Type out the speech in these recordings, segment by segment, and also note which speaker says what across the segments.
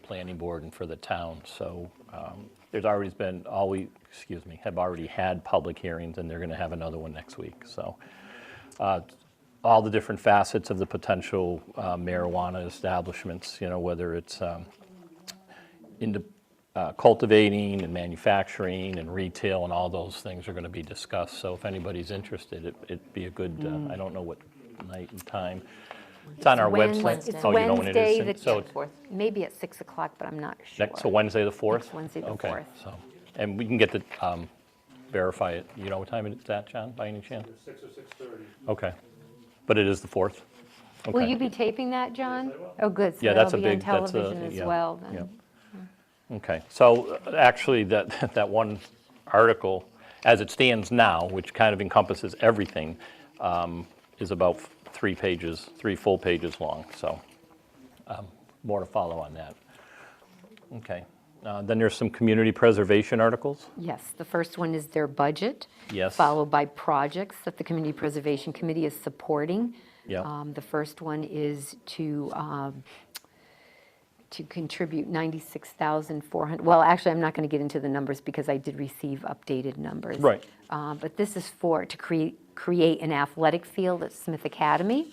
Speaker 1: planning board and for the town. So um, there's already been, all we, excuse me, have already had public hearings, and they're going to have another one next week. So uh, all the different facets of the potential uh, marijuana establishments, you know, whether it's um, into uh, cultivating and manufacturing and retail and all those things are going to be discussed. So if anybody's interested, it- it'd be a good, uh, I don't know what night and time. It's on our
Speaker 2: Wednes-
Speaker 1: website.
Speaker 2: it's
Speaker 1: Oh, you know when it is?
Speaker 2: Wednesday,
Speaker 1: And
Speaker 2: the
Speaker 1: So it's
Speaker 3: Fourth.
Speaker 2: Maybe at 6 o'clock, but I'm not sure.
Speaker 1: next, so Wednesday, the 4th?
Speaker 2: Next Wednesday, the
Speaker 1: Okay,
Speaker 2: 4th.
Speaker 1: so, and we can get the, um, verify it. You know what time it's at, John, by any chance?
Speaker 4: Six or six thirty.
Speaker 1: Okay. But it is the 4th?
Speaker 2: Will
Speaker 1: Okay.
Speaker 2: you be taping that, John? Oh, good, so
Speaker 1: Yeah, that's
Speaker 2: that'll
Speaker 1: a
Speaker 2: be on
Speaker 1: big, that's a,
Speaker 2: television as
Speaker 1: yeah,
Speaker 2: well,
Speaker 1: yeah.
Speaker 2: then.
Speaker 1: Okay, so uh, actually, that, that one article, as it stands now, which kind of encompasses everything, um, is about f- three pages, three full pages long, so um, more to follow on that. Okay, Uh, then there's some community preservation articles?
Speaker 2: Yes, the first one is their budget.
Speaker 1: Yes.
Speaker 2: Followed by projects that the Community Preservation Committee is supporting.
Speaker 1: Yeah.
Speaker 2: Um, The first one is to, um, to contribute 96,400, well, actually, I'm not going to get into the numbers because I did receive updated numbers.
Speaker 1: Right.
Speaker 2: Uh, But this is for, to create, create an athletic field at Smith Academy.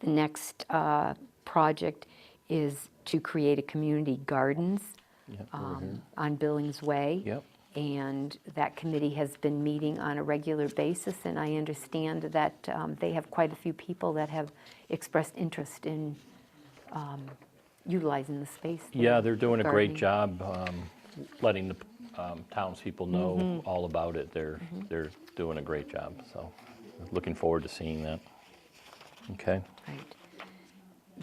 Speaker 2: The next uh, project is to create a community gardens um, on Billings Way.
Speaker 1: mm-hmm. Yep.
Speaker 2: And that committee has been meeting on a regular basis, and I understand that um, they have quite a few people that have expressed interest in um, utilizing the space. there.
Speaker 1: Yeah, they're doing a great
Speaker 2: Gardening.
Speaker 1: job um, letting the um, townspeople
Speaker 2: Mm-hmm.
Speaker 1: know all about it. They're, they're doing a great job, so looking forward to seeing that. Okay,
Speaker 2: Right.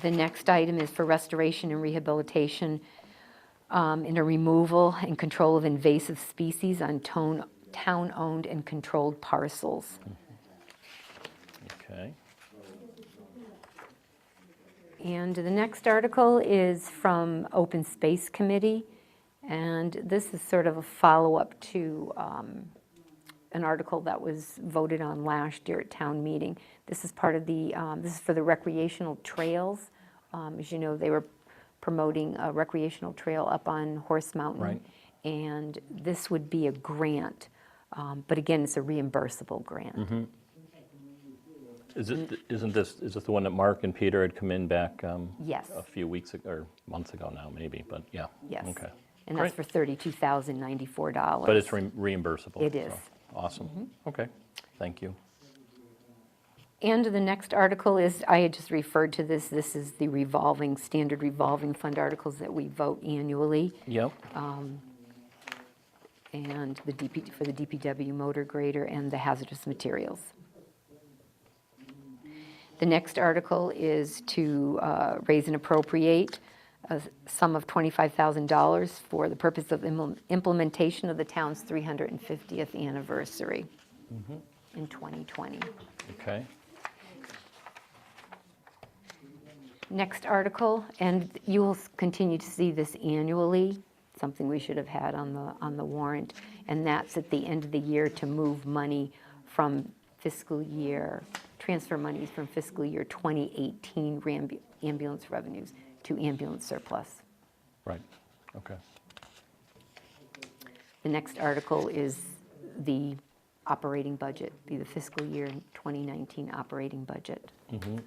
Speaker 2: The next item is for restoration and rehabilitation um, in a removal and control of invasive species on tone- town-owned and controlled parcels.
Speaker 1: okay.
Speaker 2: And the next article is from Open Space Committee, and this is sort of a follow-up to um, an article that was voted on last year at town meeting. This is part of the, um, this is for the recreational trails. Um, As you know, they were promoting a recreational trail up on Horse Mountain.
Speaker 1: Right.
Speaker 2: And this would be a grant, um, but again, it's a reimbursable grant.
Speaker 1: Mm-hmm. Is
Speaker 2: Mm.
Speaker 1: it, isn't this, is this the one that Mark and Peter had come in back? um,
Speaker 2: Yes.
Speaker 1: A few weeks, ag- or months ago now, maybe, but yeah.
Speaker 2: Yes.
Speaker 1: Okay.
Speaker 2: And that's for
Speaker 1: Great.
Speaker 2: $32,094.
Speaker 1: But it's re- reimbursable?
Speaker 2: It
Speaker 1: so,
Speaker 2: is. Mm-hmm.
Speaker 1: Awesome, okay, thank you.
Speaker 2: And the next article is, I had just referred to this, this is the revolving, standard revolving fund articles that we vote annually,
Speaker 1: Yep,
Speaker 2: Uh. and the DP, for the DPW motor grader and the hazardous materials. The next article is to uh, raise and appropriate a sum of $25,000 for the purpose of imple- implementation of the town's 350th anniversary in 2020.
Speaker 1: okay,
Speaker 2: Next article, and you will s- continue to see this annually, something we should have had on the, on the warrant, and that's at the end of the year to move money from fiscal year, transfer monies from fiscal year 2018 rambu- ambulance revenues to ambulance surplus.
Speaker 1: right, okay.
Speaker 2: The next article is the operating budget, be the fiscal year 2019 operating budget.
Speaker 1: Mm-hmm.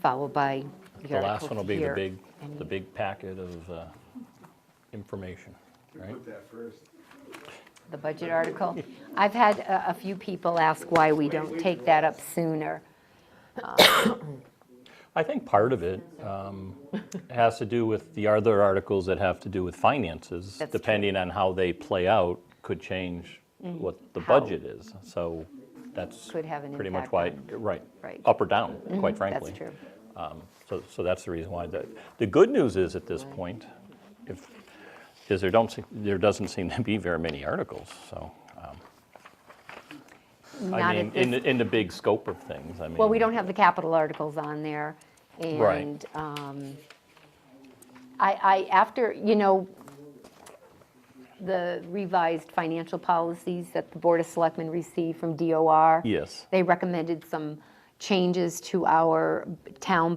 Speaker 2: Followed by the
Speaker 1: The last one
Speaker 2: article
Speaker 1: will be the
Speaker 2: here.
Speaker 1: big,
Speaker 2: And
Speaker 1: the big packet of uh, information, right?
Speaker 2: The budget article. I've had a, a few people ask why we don't take that up sooner.
Speaker 1: I think part of it um, has to do with the other articles that have to do with finances,
Speaker 2: That's true.
Speaker 1: depending on how they play out, could change what the
Speaker 2: Mm-hmm. How.
Speaker 1: budget is. So that's
Speaker 2: Could have an
Speaker 1: pretty much
Speaker 2: impact
Speaker 1: why,
Speaker 2: on-
Speaker 1: right,
Speaker 2: right. Mm-hmm.
Speaker 1: up or down, quite frankly.
Speaker 2: That's true.
Speaker 1: So, so that's the reason why. The, the good news is at this point, if, is there don't, se- there doesn't seem to be very many articles, so. um,
Speaker 2: Not
Speaker 1: I mean,
Speaker 2: at
Speaker 1: in,
Speaker 2: this,
Speaker 1: the- in the big scope of things, I mean.
Speaker 2: well, we don't have the capital articles on there.
Speaker 1: Right.
Speaker 2: And um, I, I, after, you know, the revised financial policies that the Board of Selectmen received from DOR.
Speaker 1: Yes.
Speaker 2: They recommended some changes to our town